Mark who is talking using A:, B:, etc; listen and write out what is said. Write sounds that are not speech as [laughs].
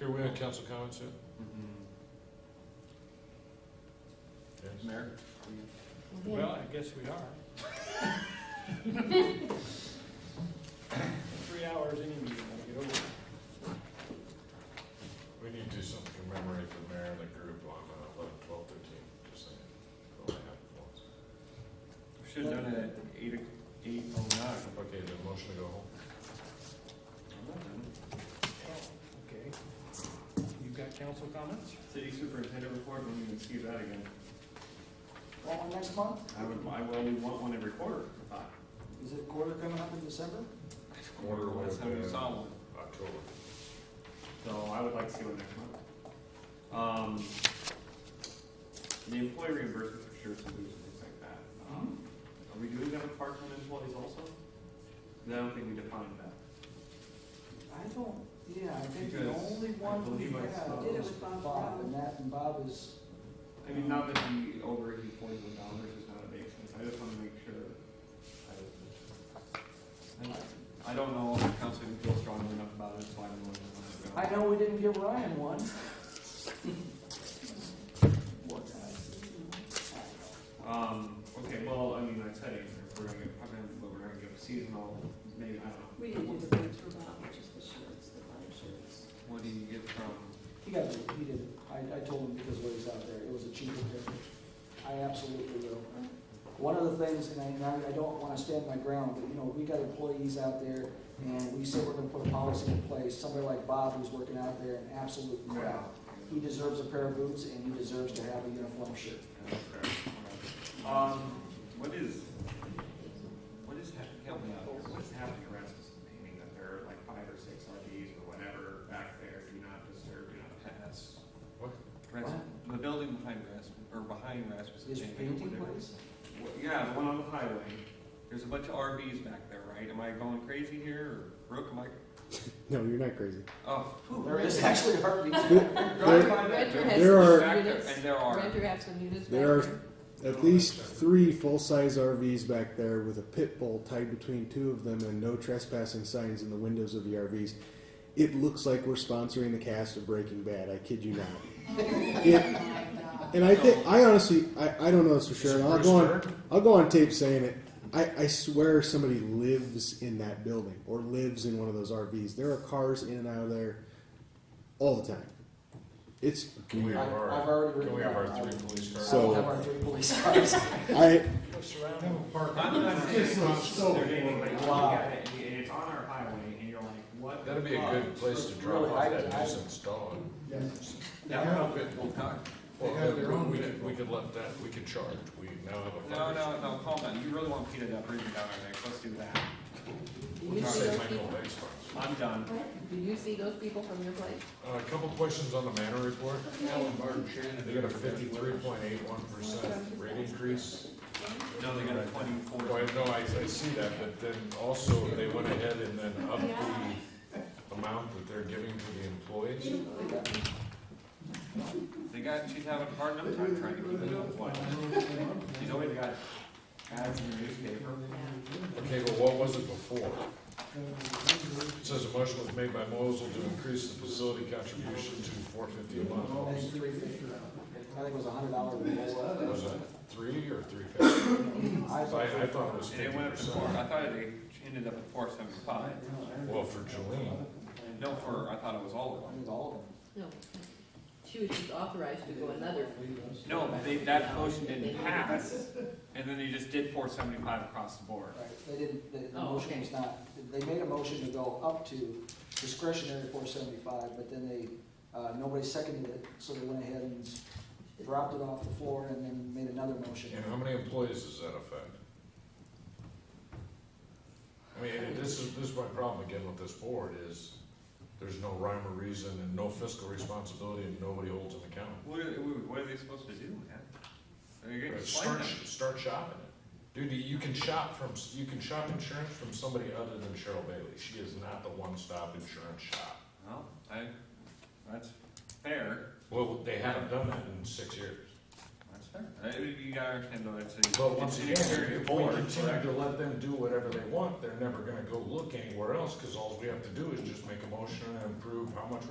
A: Are we on council comments yet?
B: Mm-hmm. Mayor?
C: Well, I guess we are. Three hours any meeting, I'll get over it.
A: We need to do something to commemorate the mayor and the group on uh, eleven, twelve, thirteen, just saying. Go ahead, once.
B: Should have done it at eight, o- eight oh nine.
A: Okay, the motion to go home.
C: Okay. You've got council comments?
B: City superintendent report, we need to see that again.
D: That one next month?
B: I would, I well, we want one every quarter, I thought.
D: Is it quarter coming up in December?
A: Quarter
B: Last
A: was,
B: time we
A: uh,
B: saw one.
A: October.
B: So I would like to see one next month. Um, the employee reimbursement for shirts and boots and things like that. Um,
C: Hmm.
B: Are we doing that with part-time employees also? 'Cause I don't think we defined that.
D: I don't, yeah, I think the
B: Because
D: only
B: I
D: one we
B: believe I
D: had
B: saw-
E: Did it
D: was
E: with Bob
D: Bob,
E: Brown.
D: and that, and Bob is,
B: I mean, now that the over eighty forty-one dollars is not a big sense, I just wanna make sure. I- I don't know if the council can feel strongly enough about it, so I don't know. if I'm
D: I
B: gonna
D: know we didn't give Ryan one. Poor guy.
B: go. Um, okay, well, I mean, I said, it, if we're gonna get, I'm gonna, but we're gonna give seasonal, maybe, I don't know.
E: We didn't do the boots for Bob, which is the shirts, the line shirts.
B: What do you get from?
D: He got, it. he did, I, I told him because what he's out there, it was a cheaper ticket. I absolutely will. One of the things, and I, and I- I don't wanna stand my ground, but you know, we got employees out there and we said we're gonna put a policy in place, somebody like Bob who's working out there in absolute crap. He deserves a pair of boots and he deserves to have a uniform shirt.
B: Um, what is, what is happening, help me out here, what is happening around this painting that there are like five or six RVs or whatever back there, do not disturb, do not pass?
A: What?
B: Ras- the building behind Rasmus, or behind Rasmus
D: Is
B: Chamber,
D: painting
B: whatever.
D: place?
B: Wha- Yeah, the one on the highway, there's a bunch of RVs back there, right, am I going crazy here, or Brooke, am I,
F: [laughs] No, you're not crazy.
B: oh. whew,
D: There is actually a heartbeat.
B: Drive by that
E: Renter
B: building.
E: has
F: There
E: some
F: are-
B: Back there,
E: units.
B: And there are,
E: Renter has some units back
F: There are-
E: there.
F: At least three full-size RVs back there with a pit bull tied between two of them and no trespassing signs in the windows of the RVs. It looks like we're sponsoring the cast of Breaking Bad. I kid you not. It- and I think I honestly I, I don't know this for sure. and I'll go on I'll go on tape saying it. I, I swear somebody lives in that building or lives in one of those RVs. There are cars in and out of there all the time. It's
A: Can we have
D: I've-
A: our,
D: I've already
A: can we
D: written
A: have our
D: down.
A: three police cars?
F: So-
D: I will have our three police cars.
F: I
B: I'm not saying
A: so
B: they're naming, like, you
D: Wow.
B: got it, and it's on our highway, and you're like, what?
A: That'd be a good place to drop
D: Really,
A: off
D: I-
A: that
D: I-
A: nuisance dog.
B: That would help it, well, no,
A: Well, we could, we could let that, we could charge, we now have a.
B: no, no, calm down, you really want Peter to bring it down our neck, let's do that.
E: Do
A: We
E: you
A: could
E: see
A: say
E: those
A: Michael
E: people?
A: Bay sponsor.
B: I'm done.
E: What? Do you see those people from your place?
A: Uh, A couple questions on the manor report.
E: Alan
A: They got a fifty-three point eight one percent rate increase.
B: No, they got a twenty-four.
A: Well, no, I, I see that, but then also they went ahead and then upped the amount that they're giving to the employees.
B: They got, she's having a hard enough time trying to keep it afloat. She's always got ads in the newspaper.
A: Okay, but what was it before? It says a motion was made by Mosel to increase the facility contribution to four fifty a month.
D: I
A: Was
D: think three fifty. I think it was a hundred
A: it-
D: dollars.
A: Was it three or three fifty?
D: I
A: I, I thought it was
B: And it
A: fifty
B: went up to four, I
A: percent.
B: thought it ended up at four seventy-five.
A: Well, for Jolene,
B: No, for, I thought it was all of
D: I
B: them.
D: think all
E: No. She was just authorized to go another.
B: No, they, that motion didn't pass, and then they just did four seventy-five across the board.
D: of them. Right, They didn't, the, the
E: Oh,
D: motion
E: okay.
D: was not, they made a motion to go up to discretionary four seventy-five, but then they, uh, nobody seconded it, so they went ahead and dropped it off the floor and then made another motion.
A: and how many employees does that affect? I mean, and this is, this is my problem again with this board is there's no rhyme or reason and no fiscal responsibility and nobody holds an account.
B: What are, what are they supposed to do, man? They're getting
A: Start,
B: slammed.
A: start shopping it. Dude, you can shop from, you can shop insurance from somebody other than Cheryl Bailey. She is not the one-stop insurance shop.
B: Well, I, that's fair,
A: Well, they haven't done that in six years.
B: that's fair. I mean, you gotta understand though, it's a.
A: But once
B: it's
A: again,
B: an exterior
A: if we
B: board,
A: continue
B: correct?
A: to let them do whatever they want, they're never gonna go look anywhere else, cause all we have to do is just make a motion and approve how much